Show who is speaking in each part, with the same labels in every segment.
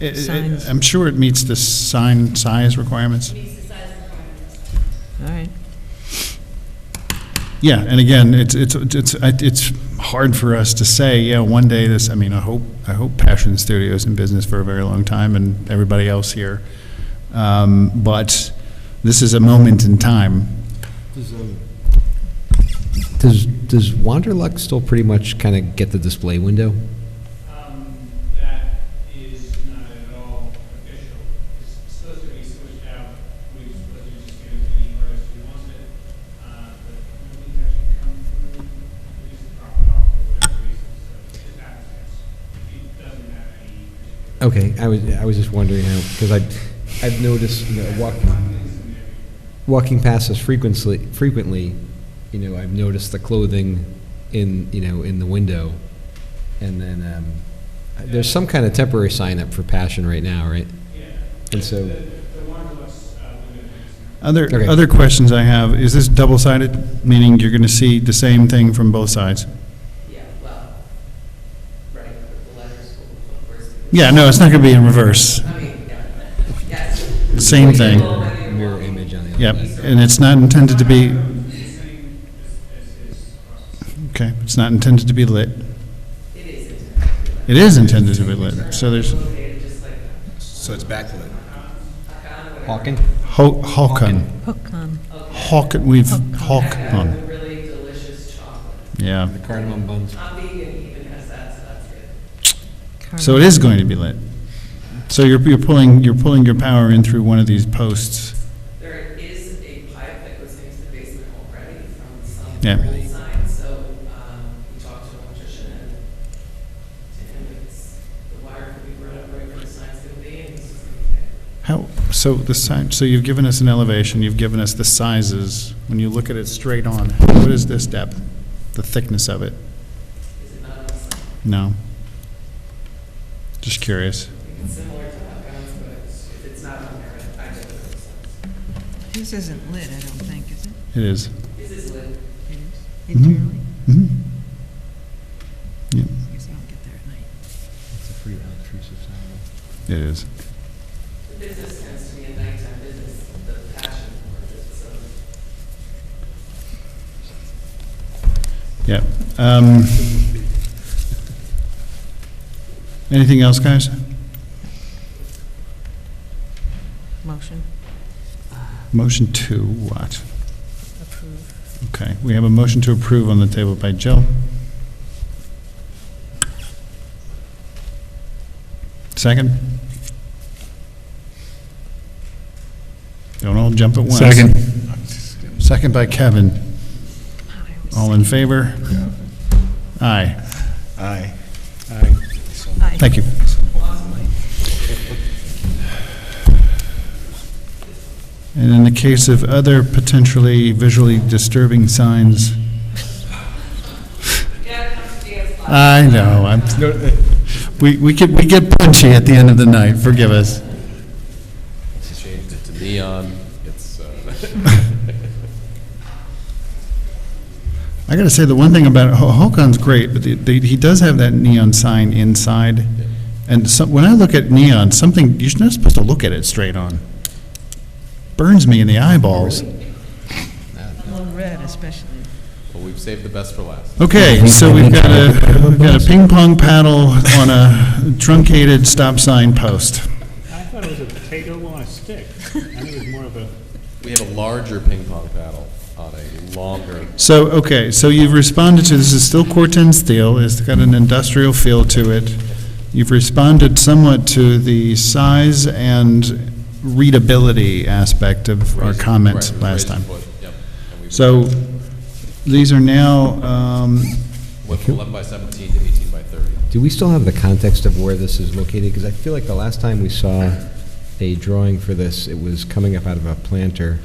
Speaker 1: It- um, it-
Speaker 2: Signs.
Speaker 1: I'm sure it meets the sign size requirements.
Speaker 3: meets the size requirements.
Speaker 2: All right.
Speaker 1: Yeah, and again, it's, it's, it's, I- it's hard for us to say, yeah, one day this, I mean, I hope, I hope Passion Studio is in business for a very long time and everybody else here. Um, But this is a moment in time.
Speaker 4: Does, does Wanderlux still pretty much kind of get the display window?
Speaker 5: Um, That is not at all official. It's supposed to be switched out. We were supposed to just give it to the artist who wants it. Uh, But nobody's actually come through, we just dropped it off for whatever reason, so it just happens. It doesn't have any particular.
Speaker 4: Okay, I was, I was just wondering how, because I, I've noticed, you know, walking, walking past us frequently, frequently, you know, I've noticed the clothing in, you know, in the window. And then, um, there's some kind of temporary sign up for Passion right now, right?
Speaker 5: Yeah.
Speaker 4: And so-
Speaker 5: The, the Wanderlust, uh, would have been.
Speaker 1: Other,
Speaker 4: Okay.
Speaker 1: other questions I have, is this double-sided, meaning you're going to see the same thing from both sides?
Speaker 6: Yeah, well, right, but the letters will, of course.
Speaker 1: Yeah, no, it's not going to be in reverse.
Speaker 6: I mean, yeah, yes.
Speaker 1: Same thing.
Speaker 4: Mirror image on the other.
Speaker 1: Yep, and it's not intended to be,
Speaker 5: Same as, as his process.
Speaker 1: okay, it's not intended to be lit.
Speaker 6: It is intended.
Speaker 1: It is intended to be lit, so there's,
Speaker 6: Located just like
Speaker 7: So it's backlit.
Speaker 4: Hawking?
Speaker 1: Ho- Hawken,
Speaker 2: Hook on.
Speaker 1: Hawken, we've,
Speaker 6: that
Speaker 1: Hawken,
Speaker 6: with really delicious chocolate.
Speaker 1: yeah.
Speaker 4: The cardamom buns.
Speaker 6: I'm vegan even has that, so that's good.
Speaker 1: So it is going to be lit. So you're, you're pulling, you're pulling your power in through one of these posts.
Speaker 6: There is a pipe that goes into the basement already from some
Speaker 1: Yeah.
Speaker 6: old sign, so, um, we talked to an electrician and to him, it's, the wire could be run up right where the sign's gonna be and he's just gonna take it.
Speaker 1: How, so the sign, so you've given us an elevation, you've given us the sizes. When you look at it straight on, what is this depth, the thickness of it?
Speaker 6: Is it not on the sign?
Speaker 1: No? Just curious.
Speaker 6: I think It's similar to Hopkins, but if it's not on there, I don't know. what it says.
Speaker 2: This isn't lit, I don't think, is it?
Speaker 1: It is.
Speaker 6: This is lit.
Speaker 2: It is.
Speaker 1: Mhm.
Speaker 2: Internally?
Speaker 1: Mhm. Yep,
Speaker 2: I guess I don't get there at night.
Speaker 4: It's a pretty unobtrusive sign.
Speaker 1: It is.
Speaker 6: The business tends to be a nighttime business, the passion for it, so
Speaker 1: Yep. Um, Anything else, guys?
Speaker 2: Motion,
Speaker 1: Motion to what?
Speaker 2: approve.
Speaker 1: Okay, we have a motion to approve on the table by Jill. Second? Don't all jump at once. Second. Second by Kevin. All in favor? Aye.
Speaker 7: Aye.
Speaker 1: Thank you. And in the case of other potentially visually disturbing signs,
Speaker 6: you gotta come to dance live.
Speaker 1: I know, I'm, we, we get, we get punchy at the end of the night, forgive us.
Speaker 7: Changed it to neon, it's, uh,
Speaker 1: I gotta say, the one thing about, Ho- Hokon's great, but the- the- he does have that neon sign inside. And some, when I look at neon, something, you're not supposed to look at it straight on. Burns me in the eyeballs.
Speaker 2: Well, red especially.
Speaker 7: well, we've saved the best for last.
Speaker 1: Okay, so we've got a, we've got a ping pong paddle on a truncated stop sign post.
Speaker 8: I thought it was a potato on a stick. I think it was more of a.
Speaker 7: We have a larger ping pong paddle on a longer,
Speaker 1: So, okay, so you've responded to, this is still Corten steel, it's got an industrial feel to it. You've responded somewhat to the size and readability aspect of our
Speaker 7: Raised-
Speaker 1: comments
Speaker 7: right,
Speaker 1: last
Speaker 7: raised
Speaker 1: time.
Speaker 7: foot, Yep. And we-
Speaker 1: So, these are now, um,
Speaker 7: Went from 11 by 17 to 18 by 30.
Speaker 4: Do we still have the context of where this is located? Because I feel like the last time we saw a drawing for this, it was coming up out of a planter.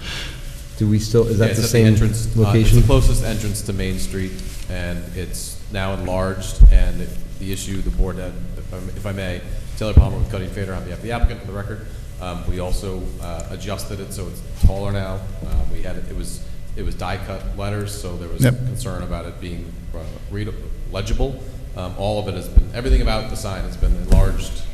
Speaker 4: Do we still, is
Speaker 7: Yeah,
Speaker 4: that
Speaker 7: it's
Speaker 4: the
Speaker 7: at
Speaker 4: same
Speaker 7: entrance, uh, It's
Speaker 4: location?
Speaker 7: the closest entrance to Main Street, and it's now enlarged, and it- the issue the board had, if I'm- if I may, Taylor Palmer with Cutting Fader on behalf of the applicant for the record, um, we also uh, adjusted it so it's taller now. Um, We had, it it was, it was die-cut letters, so there was
Speaker 1: Yep.
Speaker 7: concern about it being uh, read- legible. Um, All of it has been, everything about the sign has been enlarged